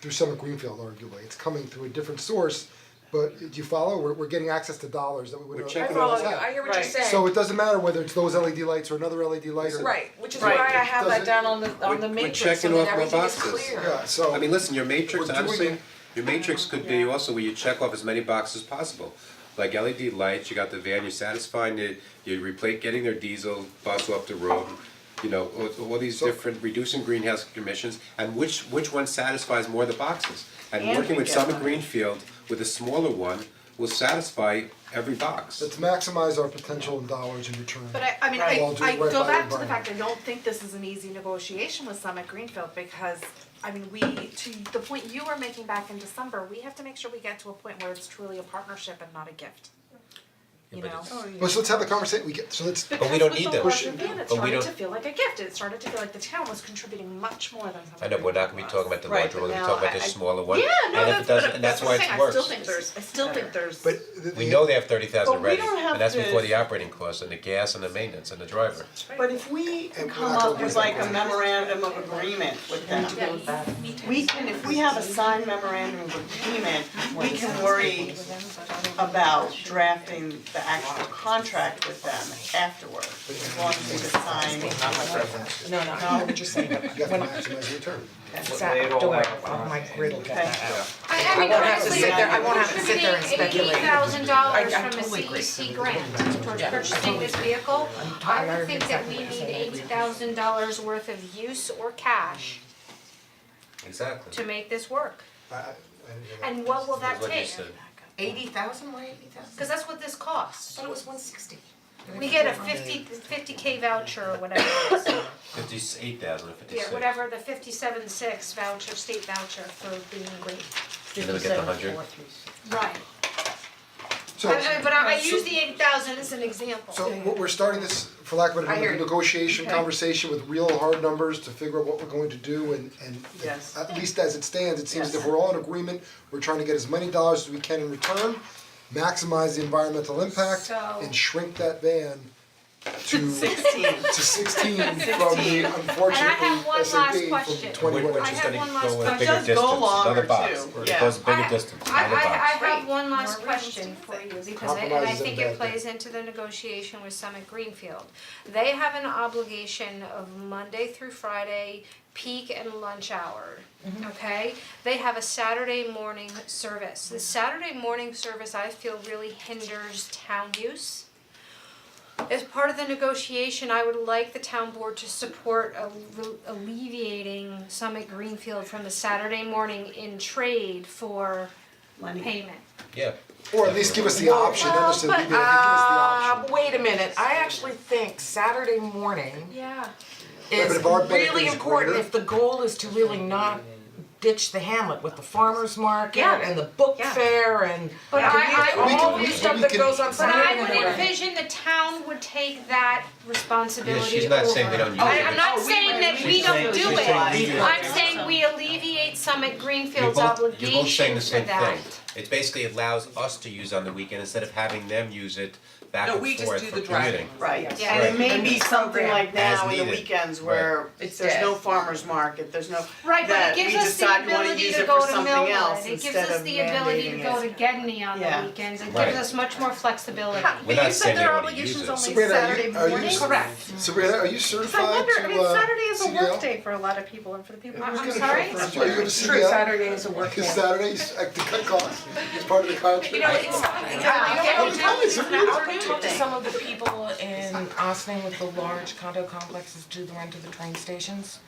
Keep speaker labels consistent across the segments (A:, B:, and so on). A: through Summit Greenfield arguably, it's coming through a different source, but do you follow, we're we're getting access to dollars that we would
B: We're
A: otherwise have.
B: checking
C: I follow you, I hear what you're
D: Right.
C: saying.
A: So it doesn't matter whether it's those LED lights or another LED light or.
C: Right, which is why I
D: Right.
C: have that
A: Doesn't-
C: down on the, on
B: We're-
C: the
B: we're
C: matrix, so
B: checking
C: that
B: off what
C: everything is clear.
B: boxes.
A: Yeah, so.
B: I mean, listen, your matrix,
A: We're doing
B: honestly,
A: it.
B: your matrix could be also where you check off as many boxes as possible. Like LED lights, you got the van, you're satisfying it, you replace, getting their diesel bus off the road, you know, all, all these
A: So-
B: different, reducing greenhouse emissions, and which, which one satisfies more of the boxes? And
D: And
B: working
D: we
B: with
D: get
B: Summit
D: money.
B: Greenfield with a smaller one will satisfy every box.
A: Let's maximize our potential in dollars in return.
E: But I, I mean,
A: While
E: I,
A: doing
E: I
A: right
E: go
A: by
E: back to the
A: environment.
E: fact, I don't think this is an easy negotiation with Summit Greenfield, because, I mean, we, to the point you were making back in December, we have to make sure we get to a point where it's truly a partnership and not a gift. You know?
C: Oh,
A: But so let's have the conversation, we get, so let's,
F: But we don't need that.
E: Because with the larger van, it
F: But we
E: started
F: don't-
E: to feel like a gift, it started to feel like the town was contributing much more than
F: I
E: Summit
F: know, but we're not
E: Greenfield
F: gonna be
E: was.
F: talking about the
D: Right,
F: larger
D: but
F: one, we're
D: now
F: talking about
D: I-
F: the
D: I-
F: smaller one,
E: Yeah, no,
F: and if
E: that's,
F: it doesn't,
E: but
F: and that's
E: that's
F: why
E: what I'm
F: it's
E: saying, I
F: worse.
E: still think there's, I still think there's.
A: but the
F: We
A: the-
F: know they have thirty thousand
D: But we
F: already,
D: don't have
F: and that's
D: to-
F: before the operating costs and the gas and the maintenance and the driver.
D: But if we can
A: And we're not
D: come up
A: gonna
D: with
A: do
D: like
A: that.
D: a memorandum of agreement with them. We can, if we have a signed memorandum of agreement, we can worry about drafting the actual contract with them afterward, as long as we decide.
C: No, no,
D: No,
C: I'm just saying,
A: you gotta maximize your return.
C: Zach, don't worry, oh, my grid will get
D: Okay.
C: that out.
G: I I
C: I
G: mean,
C: won't have to
G: honestly,
C: sit there, I won't have to sit there and
G: contributing eighty
C: speculate.
G: thousand dollars
C: I- I
G: from a
C: totally agree.
G: CEC grant towards purchasing this vehicle, I would think that we need eighty thousand dollars worth of use or cash to
F: Exactly.
G: make this work.
A: I- I- I didn't hear that.
G: And what will
F: That's
G: that
F: what you
G: take?
F: said.
C: Eighty thousand, why eighty thousand?
G: Cause that's what this costs.
C: it was one sixty.
G: We get a 50 K voucher or whatever it is.
F: Fifty-eight thousand or
G: Yeah,
F: fifty-six.
G: whatever, the fifty-seven six voucher, state voucher for being great.
F: And then we get the hundred.
G: Right.
A: So-
G: I, I, but I, I use the eighty thousand as an example.
A: So we're we're starting this, for lack of a
C: I hear
A: better
C: you.
A: negotiation,
C: Okay.
A: conversation with real hard numbers to figure out what we're going to do and and
D: Yes.
A: at least as it stands, it seems
D: Yes.
A: if we're all in agreement, we're trying to get as many dollars as we can in return, maximize the environmental impact
G: So-
A: and shrink that van to
D: Sixteen.
A: to sixteen from the
D: Sixteen.
G: And I have one
A: unfortunately
G: last
A: S and P
G: question.
A: from twenty one.
G: I have one last
F: Which
G: question.
F: is gonna
D: Just
F: go
D: go
F: a
D: longer,
F: bigger distance, another box,
D: too.
F: or
D: Yeah.
F: it goes bigger
G: I-
F: distance,
G: I,
F: another
G: I, I
F: box.
G: have one
E: More room
G: last
E: to
G: question
E: do
G: for
E: things.
G: you, because I, and I
A: Compromise
G: think
A: isn't
G: it
A: bad,
G: plays into the negotiation with Summit Greenfield. They have an obligation of Monday through Friday, peak and lunch hour, okay? They have a Saturday morning service. The Saturday morning service, I feel, really hinders town use. As part of the negotiation, I would like the town board to support alle- alleviating Summit Greenfield from the Saturday morning in trade for payment.
F: Yeah.
A: Or at least give us the option, understand, leave it, give us the option.
C: Uh, wait a minute, I actually think Saturday morning
G: Yeah.
A: but
C: is
A: if our benefit
C: really
A: is
C: important
A: greater-
C: if the goal is to really not ditch the hamlet with the farmer's market
G: Yeah.
C: and the book
G: Yeah.
C: fair and
G: But I, I
A: We can-
C: all the
G: always,
C: stuff
A: we
C: that
A: can-
C: goes on
G: but
C: Saturday
G: I would
C: morning.
G: envision the town would take that responsibility
F: Yeah,
G: over.
F: she's not saying we don't use
G: I-
F: it,
G: I'm
F: but-
G: not saying that we
F: She's
G: don't
F: saying-
G: do
F: she's
G: it,
F: saying we do it.
G: I'm saying we alleviate Summit
F: You're
G: Greenfield's
F: both, you're both saying
G: obligation
F: the
G: for
F: same
G: that.
F: thing. It basically allows us to use on the weekend instead of having them use it back
H: No,
F: and
H: we
F: forth
H: just do
F: for
H: the
F: commuting.
H: driving.
D: Right,
G: Yeah.
D: and
F: Right.
D: it may be something like now
F: As
D: in the
F: needed.
D: weekends where
H: It's
D: there's no
H: dead.
D: farmer's market, there's no,
G: Right, but
D: that
G: it
D: we
G: gives us the
D: decide we wanna
G: ability
D: use
G: to
D: it
G: go
D: for
G: to
D: something else
G: Millwood, it gives
D: instead
G: us
D: of
G: the ability to
D: mandating
G: go to
D: it.
G: Gedney on
D: Yeah.
G: the weekends, it
F: Right.
G: gives us much more flexibility.
F: We're not saying they want to use it.
A: Sabrina, are you- are you-
E: Correct.
A: Sabrina, are you
E: So I
A: certified
E: wonder, I
A: to
E: mean,
A: uh,
E: Saturday is a
A: CDL?
E: workday for a lot of people and for the people.
G: I'm
E: who-
G: sorry?
A: Are you gonna CDL?
C: is a work
A: Is Saturdays at the cut costs, it's part of the contract.
C: Yeah,
A: I'm telling you, Sabrina,
C: I'll go talk to some of the people in Austin with the large condo complexes do the rent of the train stations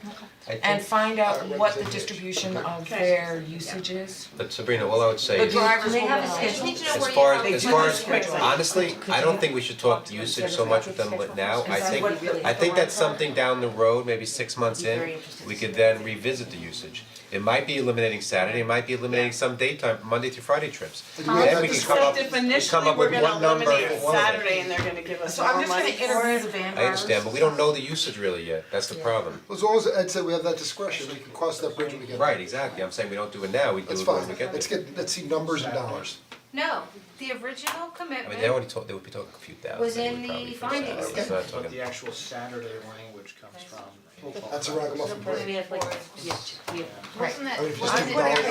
F: I
C: and
F: think,
C: find out
A: Alright,
C: what the
A: representation.
C: distribution
A: Okay.
C: of their usage is.
F: but Sabrina, all I would say
C: The
F: is.
C: drivers will
G: have a
C: know.
G: schedule. Need to know
F: As
G: where you
F: far
G: are.
F: as, as
C: They
F: far
C: do
F: as,
C: quickly.
F: honestly, I don't
C: you
F: think we should talk usage so much with them li- now, I
C: Is that
F: think,
C: what really
F: I
C: is
F: think
C: the
F: that's
C: long term?
F: something down the road, maybe six months in, we could then revisit the usage. It might be eliminating Saturday, it might be eliminating some daytime, Monday through Friday trips.
A: do we have that
F: Then we can come up,
D: Except if
F: we come
D: initially
F: up
D: we're
F: with
D: gonna
F: one number
D: eliminate
F: for all of
D: Saturday
F: it.
D: and they're gonna give us
C: So
D: more
C: I'm
D: money
C: just gonna
D: for
C: interview
D: it.
C: the van
F: I understand, but we don't know the usage really yet, that's the problem.
A: As long as Ed said we have that discretion, we can cross that bridge when we get there.
F: Right, exactly, I'm saying we don't do it now, we do
A: That's
F: it
A: fine,
F: when we get there.
A: let's get, let's see numbers and dollars.
G: No, the original
F: I mean, they
G: commitment,
F: already talk, they would be talking a few
G: Was
F: thousand, they
G: in
F: would
G: the
F: probably for
G: findings.
F: Saturday, it's not
I: But
F: talking-
I: the actual Saturday language comes from
A: That's a ragamuffin break.
G: We have like, we have, we have
I: Right.
A: I mean, if you
G: Well,
A: just
G: I'm
A: do
G: gonna-
A: dollar-